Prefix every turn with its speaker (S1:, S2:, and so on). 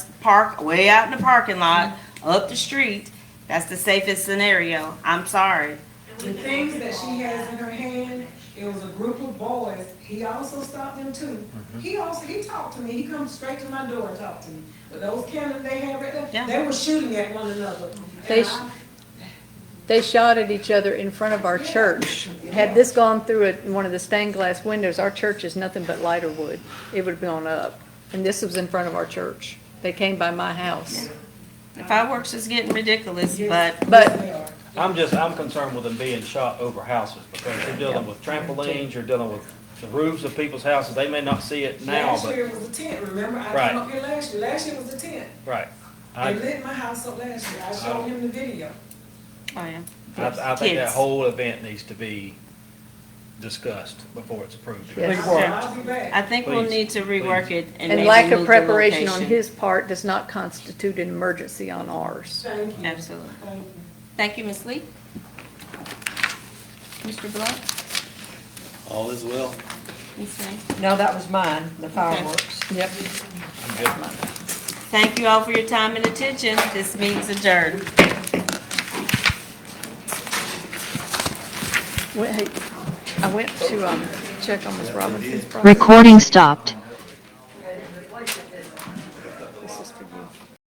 S1: park way out in the parking lot, up the street. That's the safest scenario. I'm sorry.
S2: The things that she has in her hand, it was a group of boys, he also stopped them too.
S3: Mm-hmm.
S2: He also, he talked to me, he comes straight to my door and talked to me. But those cannons they had right
S1: Yeah.
S2: there, they were shooting at one another.
S4: They
S2: And
S4: sh-
S2: I-
S4: They shot at each other in front of our church. Had this gone through it in one of the stained glass windows, our church is nothing but lighter wood. It would have gone up. And this was in front of our church. They came by my house.
S1: The fireworks is getting ridiculous, but
S4: But-
S2: They are.
S3: I'm just, I'm concerned with them being shot over houses, because you're dealing with trampolines, you're dealing with the roofs of people's houses, they may not see it now,
S2: Last
S3: but,
S2: year was a tent, remember? I
S3: Right.
S2: came up here last year, last year was a tent.
S3: right. I,
S2: They lit my house up last year, I showed him the video.
S1: Oh, yeah.
S3: I, I think that
S1: Kids.
S3: whole event needs to be discussed before it's approved.
S4: Yes.
S2: I said, I'll be back.
S1: I think we'll
S3: Please,
S1: need to rework it and
S4: And
S1: maybe
S4: lack of
S1: move the
S4: preparation on
S1: location.
S4: his part does not constitute an emergency on ours.
S2: Thank you.
S1: Absolutely.
S2: Thank you.
S1: Thank you, Ms. Lee. Mr. Blunt,
S5: All is well.
S1: Ms. May.
S6: No, that was mine, the fireworks.
S4: Yep.
S3: I'm good.
S1: Thank you all for your time and attention. This meeting's adjourned.
S4: Wait, hey, I went to, um, check on Ms. Robinson's property.
S7: Recording stopped.